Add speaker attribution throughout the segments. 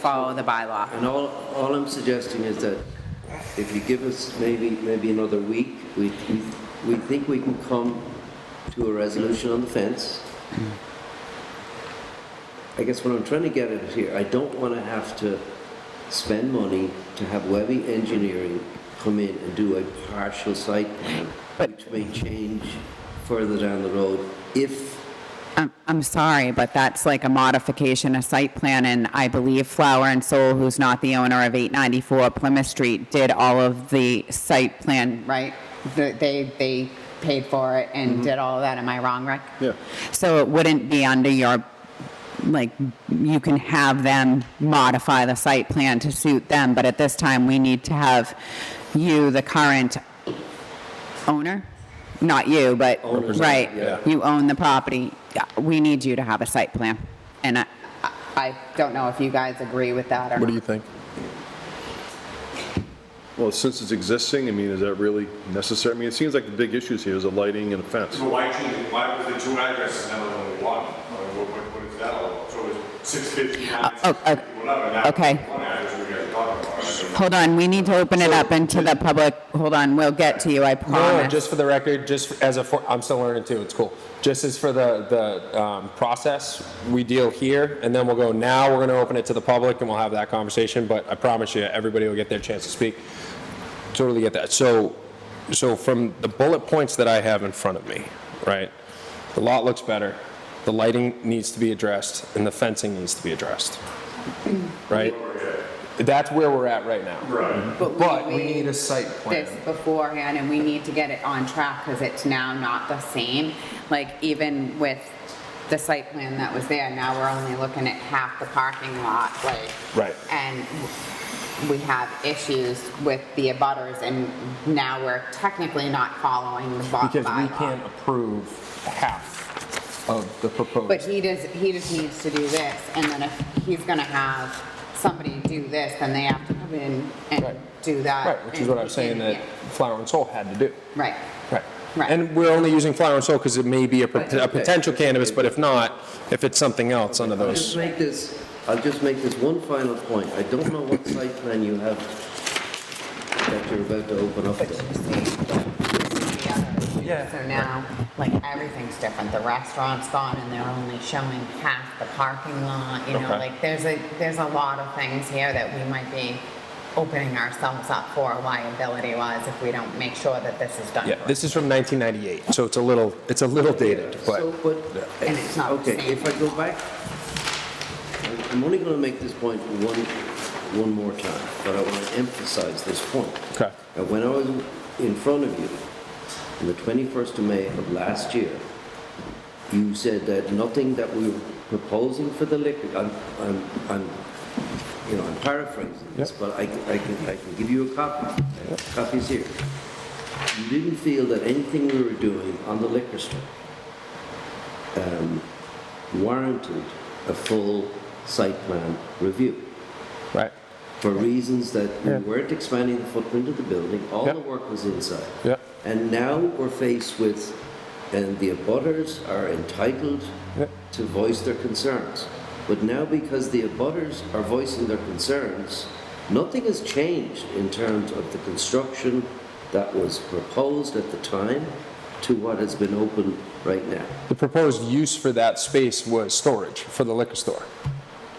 Speaker 1: follow the bylaw.
Speaker 2: And all, all I'm suggesting is that if you give us maybe, maybe another week, we, we think we can come to a resolution on the fence. I guess what I'm trying to get at here, I don't want to have to spend money to have Webby Engineering come in and do a partial site plan, which may change further down the road if
Speaker 1: I'm, I'm sorry, but that's like a modification of site plan, and I believe Flower and Soul, who's not the owner of 894 Plymouth Street, did all of the site plan, right? The- They, they paid for it and did all of that, am I wrong, Rick?
Speaker 3: Yeah.
Speaker 1: So it wouldn't be under your, like, you can have them modify the site plan to suit them, but at this time, we need to have you, the current owner? Not you, but,
Speaker 2: Owners,
Speaker 1: right,
Speaker 2: yeah.
Speaker 1: you own the property, Yeah, we need you to have a site plan. And I, I- I don't know if you guys agree with that or
Speaker 3: What do
Speaker 1: not.
Speaker 3: you think? Well, since it's existing, I mean, is that really necessary? I mean, it seems like the big issues here is the lighting and the fence.
Speaker 4: So why change, it? why was the two addresses now only one? What, what, what is that all about? So it's six fifty-nine,
Speaker 1: Oh,
Speaker 4: six
Speaker 1: oh,
Speaker 4: fifty, whatever, now it's
Speaker 1: okay.
Speaker 4: one address we guys are talking about. I mean,
Speaker 1: Hold on, we need to open it up into the public, hold on, we'll get to you, I
Speaker 5: No,
Speaker 1: promise.
Speaker 5: just for the record, just as a, for- I'm still learning too, it's cool. Just as for the, the um, process, we deal here, and then we'll go, now we're going to open it to the public, and we'll have that conversation, but I promise you, everybody will get their chance to speak. Totally get that. So, so from the bullet points that I have in front of me, right? The lot looks better, the lighting needs to be addressed, and the fencing needs to be addressed, right? That's where we're at right now.
Speaker 4: Right.
Speaker 5: But we need a site plan.
Speaker 1: this beforehand and we need to get it on track because it's now not the same. Like even with the site plan that was there, now we're only looking at half the parking lot, like.
Speaker 5: Right.
Speaker 1: And we have issues with the abutters and now we're technically not following the by-
Speaker 5: Because we
Speaker 1: bylaw.
Speaker 5: can't approve half of the
Speaker 1: But
Speaker 5: proposed.
Speaker 1: he does, he just needs to do this and then if he's gonna have somebody do this, then they have to come in and
Speaker 5: Right.
Speaker 1: do that.
Speaker 5: Right, which is
Speaker 1: and
Speaker 5: what I
Speaker 1: he
Speaker 5: was saying
Speaker 1: can-
Speaker 5: that Flower and Soul had to do.
Speaker 1: Right.
Speaker 5: Right.
Speaker 1: Right.
Speaker 5: And we're only using Flower and Soul because it may be a, pot- a
Speaker 2: Okay.
Speaker 5: potential cannabis, but if not, if it's something else under
Speaker 2: I'll just
Speaker 5: those.
Speaker 2: make this, I'll just make this one final point. I don't know what site plan you have that you're about to open up. there.
Speaker 5: Yeah.
Speaker 1: So now, like, everything's different. The restaurant's gone and they're only showing half the parking lot, you know,
Speaker 5: Okay.
Speaker 1: like, there's a, there's a lot of things here that we might be opening ourselves up for liability-wise if we don't make sure that this is done
Speaker 5: Yeah,
Speaker 1: correctly.
Speaker 5: this is from 1998, so it's a little, it's a little dated,
Speaker 2: So,
Speaker 5: but
Speaker 2: but,
Speaker 1: And it's not the
Speaker 2: okay,
Speaker 1: same.
Speaker 2: if I go back, I'm- I'm only going to make this point one, one more time, but I want to emphasize this point.
Speaker 5: Okay.
Speaker 2: Now, when I was in front of you on the 21st of May of last year, you said that nothing that we were proposing for the liquor, I'm, I'm, I'm you know, I'm paraphrasing this, but I, I can, I can give you a copy. Copy's here. You didn't feel that anything we were doing on the liquor store um, warranted a full site plan review
Speaker 5: right,
Speaker 2: for reasons that we
Speaker 5: Yeah.
Speaker 2: weren't expanding the footprint of the building, all
Speaker 5: Yeah.
Speaker 2: the work was inside.
Speaker 5: Yeah.
Speaker 2: And now we're faced with, and the abutters are entitled
Speaker 5: Yeah.
Speaker 2: to voice their concerns. But now because the abutters are voicing their concerns, nothing has changed in terms of the construction that was proposed at the time to what has been opened right now.
Speaker 5: the proposed use for that space was storage for the liquor store.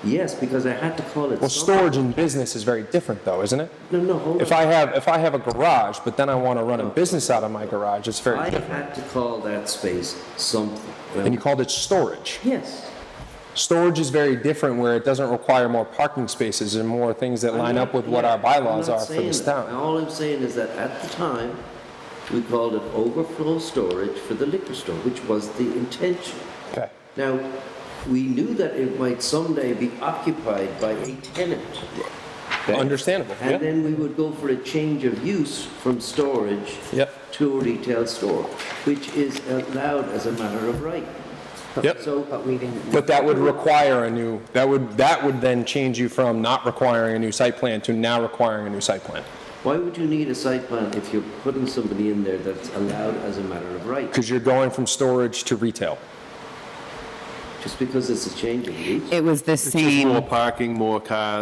Speaker 2: Yes, because I had to call it.
Speaker 5: Well,
Speaker 2: something.
Speaker 5: storage in business is very different though, isn't it?
Speaker 2: No, no, hold on.
Speaker 5: If I have, if I have a garage, but then I want to run a business out of my garage, it's very
Speaker 2: I
Speaker 5: different.
Speaker 2: had to call that space something.
Speaker 5: And you called it storage.
Speaker 2: Yes.
Speaker 5: Storage is very different where it doesn't require more parking spaces and more things that
Speaker 2: I'm
Speaker 5: line
Speaker 2: not-
Speaker 5: up with what
Speaker 2: yeah,
Speaker 5: our bylaws
Speaker 2: I'm not
Speaker 5: are for
Speaker 2: saying
Speaker 5: this
Speaker 2: that.
Speaker 5: town.
Speaker 2: All I'm saying is that at the time, we called it overflow storage for the liquor store, which was the intention.
Speaker 5: Okay,
Speaker 2: Now, we knew that it might someday be occupied by a tenant.
Speaker 5: understandable,
Speaker 2: And
Speaker 5: yeah.
Speaker 2: then we would go for a change of use from storage
Speaker 5: Yep.
Speaker 2: to a retail store, which is allowed as a matter of right.
Speaker 5: Yep.
Speaker 2: So,
Speaker 1: But we didn't.
Speaker 5: But that would require a new, that would, that would then change you from not requiring a new site plan to now requiring a new site plan.
Speaker 2: why would you need a site plan if you're putting somebody in there that's allowed as a matter of right?
Speaker 5: Because you're going from storage to retail.
Speaker 2: Just because it's a change of use?
Speaker 1: It was the
Speaker 3: More parking, more cars.